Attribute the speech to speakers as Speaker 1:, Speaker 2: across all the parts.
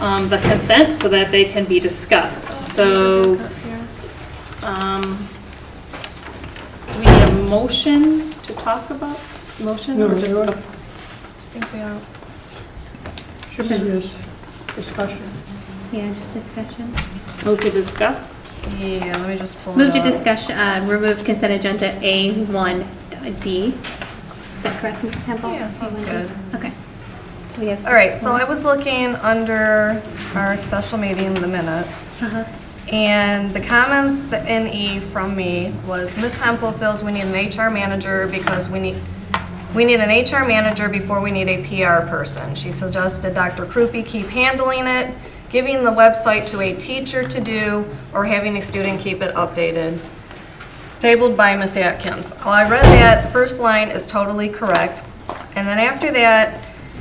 Speaker 1: um, the consent so that they can be discussed. So, um, do we need a motion to talk about, motion
Speaker 2: No,
Speaker 1: or just?
Speaker 2: they were-
Speaker 1: okay.
Speaker 2: Should be just discussion.
Speaker 3: Yeah, just discussion.
Speaker 1: Move to discuss?
Speaker 4: Yeah, let me just pull
Speaker 3: Move
Speaker 4: it
Speaker 3: to
Speaker 4: up.
Speaker 3: discussion, uh, remove consent agenda A1D. Is that correct, Mrs. Temple?
Speaker 4: Yeah, sounds good.
Speaker 3: Okay. We have.
Speaker 4: All right, so I was looking under our special meeting, the minutes,
Speaker 3: Uh-huh.
Speaker 4: and the comments that in E from me was, Ms. Hempel feels we need an HR manager because we need, we need an HR manager before we need a PR person. She suggested Dr. Krupi keep handling it, giving the website to a teacher to do, or having a student keep it updated. Tabled by Ms. Atkins. Well, I read that, the first line is totally correct. And then after that,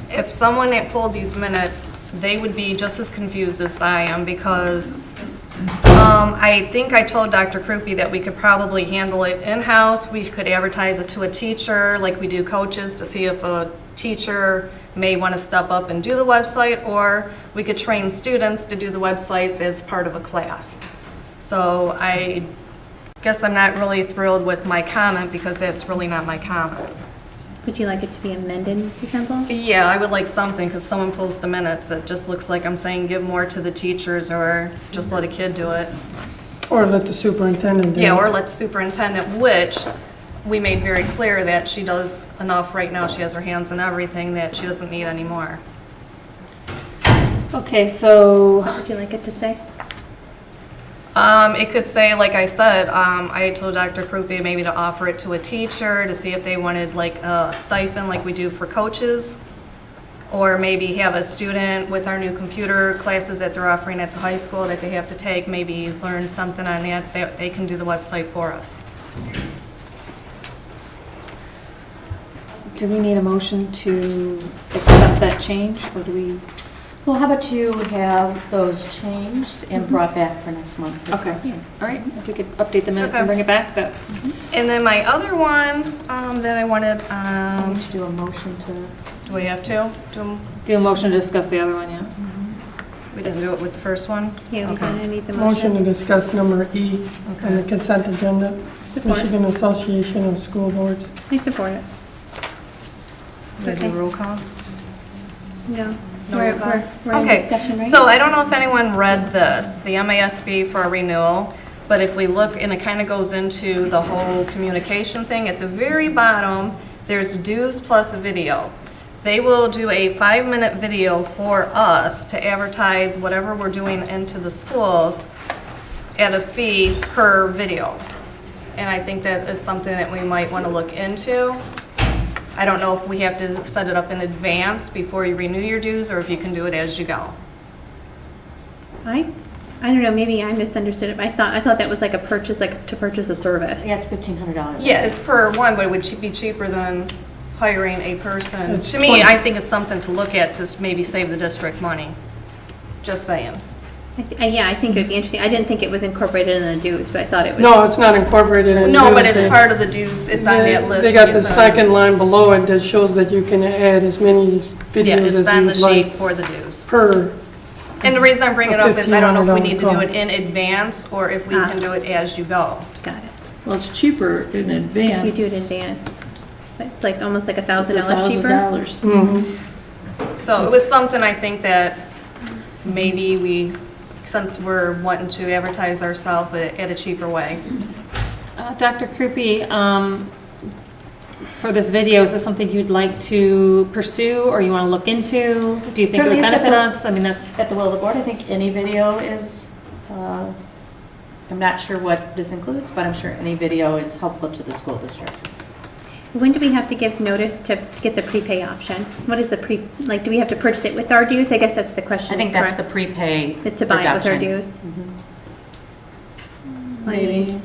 Speaker 4: if someone had pulled these minutes, they would be just as confused as I am because um, I think I told Dr. Krupi that we could probably handle it in-house. We could advertise it to a teacher, like we do coaches, to see if a teacher may want to step up and do the website, or we could train students to do the websites as part of a class. So I guess I'm not really thrilled with my comment because that's really not my comment.
Speaker 3: Would you like it to be amended, Mrs. Temple?
Speaker 4: Yeah, I would like something, because someone pulls the minutes, it just looks like I'm saying give more to the teachers or just let a kid do it.
Speaker 2: Or let the superintendent do it.
Speaker 4: Yeah, or let the superintendent, which we made very clear that she does enough right now, she has her hands in everything, that she doesn't need any more.
Speaker 1: Okay, so,
Speaker 3: What would you like it to say?
Speaker 4: Um, it could say, like I said, um, I told Dr. Krupi maybe to offer it to a teacher to see if they wanted like a stipend like we do for coaches. Or maybe have a student with our new computer classes that they're offering at the high school that they have to take, maybe learn something on that, that they can do the website for us.
Speaker 1: do we need a motion to accept that change, or do we?
Speaker 5: Well, how about you have those changed and brought back for next month?
Speaker 1: Okay, all right, if we could update the minutes
Speaker 4: Okay.
Speaker 1: and bring it back, that,
Speaker 4: And then my other one, um, that I wanted,
Speaker 5: I
Speaker 4: um,
Speaker 5: need to do a motion to,
Speaker 4: do we have to? Do,
Speaker 1: do a motion to discuss the other one, yeah?
Speaker 4: we didn't do it with the first one?
Speaker 3: Yeah, we
Speaker 4: Okay.
Speaker 3: kind of need the
Speaker 2: Motion to
Speaker 3: motion.
Speaker 2: discuss number E on the consent agenda,
Speaker 3: Support.
Speaker 2: Michigan Association of School Boards.
Speaker 3: I support it.
Speaker 4: Did I do roll call?
Speaker 3: No.
Speaker 4: No
Speaker 3: We're,
Speaker 4: roll call?
Speaker 3: we're, we're in discussion,
Speaker 4: Okay,
Speaker 3: right?
Speaker 4: so I don't know if anyone read this, the MASB for our renewal, but if we look, and it kind of goes into the whole communication thing, at the very bottom, there's dues plus video. They will do a five-minute video for us to advertise whatever we're doing into the schools at a fee per video. And I think that is something that we might want to look into. I don't know if we have to set it up in advance before you renew your dues, or if you can do it as you go.
Speaker 3: I, I don't know, maybe I misunderstood it. but I thought, I thought that was like a purchase, like to purchase a service.
Speaker 5: yeah, it's $1,500.
Speaker 4: Yeah, it's per one, but it would be cheaper than hiring a person.
Speaker 2: It's
Speaker 4: To me,
Speaker 2: 20.
Speaker 4: I think it's something to look at to maybe save the district money. Just saying.
Speaker 3: I thi- uh, Yeah, I think it would be interesting. I didn't think it was incorporated in the dues, but I thought it was.
Speaker 2: No, it's not incorporated in.
Speaker 4: No, but
Speaker 2: dues.
Speaker 4: it's
Speaker 2: They-
Speaker 4: part of the dues, it's on
Speaker 2: they-
Speaker 4: that list.
Speaker 2: They
Speaker 4: when
Speaker 2: got
Speaker 4: you
Speaker 2: the
Speaker 4: sign.
Speaker 2: second line below it that shows that you can add as many
Speaker 4: Yeah,
Speaker 2: videos
Speaker 4: it's
Speaker 2: as
Speaker 4: on the
Speaker 2: you'd
Speaker 4: sheet
Speaker 2: like
Speaker 4: for the dues.
Speaker 2: per.
Speaker 4: And the reason I'm bringing it up is I don't know if we need to do it
Speaker 2: $1,500
Speaker 4: in advance, or if we can do it as you go.
Speaker 3: Got it.
Speaker 6: Well, it's cheaper in
Speaker 3: If
Speaker 6: advance.
Speaker 3: you do it in advance. It's like almost like a
Speaker 6: It's
Speaker 3: thousand
Speaker 6: a
Speaker 3: dollars
Speaker 6: thousand
Speaker 3: cheaper.
Speaker 6: dollars.
Speaker 2: Mhm.
Speaker 4: So it was something I think that maybe we, since we're wanting to advertise ourselves at a cheaper way.
Speaker 1: Uh, Dr. Krupi, um, for this video, is this something you'd like to pursue, or you want to look into? Do you think it
Speaker 5: Certainly,
Speaker 1: would
Speaker 5: it's at
Speaker 1: benefit
Speaker 5: the-
Speaker 1: us? I mean, that's,
Speaker 5: At the will of the board, I think any video is, uh, I'm not sure what this includes, but I'm sure any video is helpful to the school district.
Speaker 3: When do we have to give notice to get the prepay option? What is the pre, like, do we have to purchase it with our dues? I guess that's the question.
Speaker 5: I think that's the
Speaker 3: correct?
Speaker 5: prepay reduction.
Speaker 3: Is to buy it with our dues? Maybe.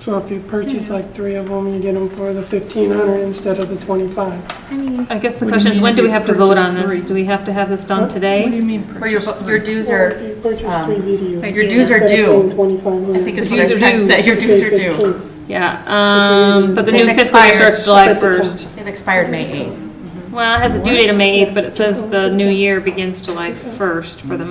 Speaker 2: So if you
Speaker 4: Mm-hmm.
Speaker 2: purchase like three of them, you get them for the 1,500 instead of the 25.
Speaker 3: I mean,
Speaker 1: I guess the
Speaker 6: What do you
Speaker 1: question is,
Speaker 6: mean
Speaker 1: when
Speaker 6: if
Speaker 1: do we
Speaker 6: you
Speaker 1: have to vote on
Speaker 6: purchase
Speaker 1: this?
Speaker 6: three?
Speaker 1: Do we have to have this done
Speaker 2: Huh?
Speaker 6: What do you
Speaker 1: today?
Speaker 6: mean
Speaker 5: Where your,
Speaker 6: purchase three?
Speaker 5: your dues
Speaker 2: Or if
Speaker 5: are,
Speaker 2: you purchase
Speaker 5: um,
Speaker 2: three videos.
Speaker 3: Right.
Speaker 5: your dues are
Speaker 2: instead of paying
Speaker 5: due,
Speaker 2: 2,500.
Speaker 5: I think is what I
Speaker 1: Dues are
Speaker 5: text
Speaker 1: due.
Speaker 5: that, your dues are due.
Speaker 1: Yeah, um, but the
Speaker 5: They've
Speaker 1: new fiscal year
Speaker 5: expired.
Speaker 1: starts July
Speaker 2: But the term-
Speaker 1: 1st.
Speaker 5: It expired May 8th.
Speaker 1: Well, it has a due date of May 8th, but it says the new year begins July 1st for the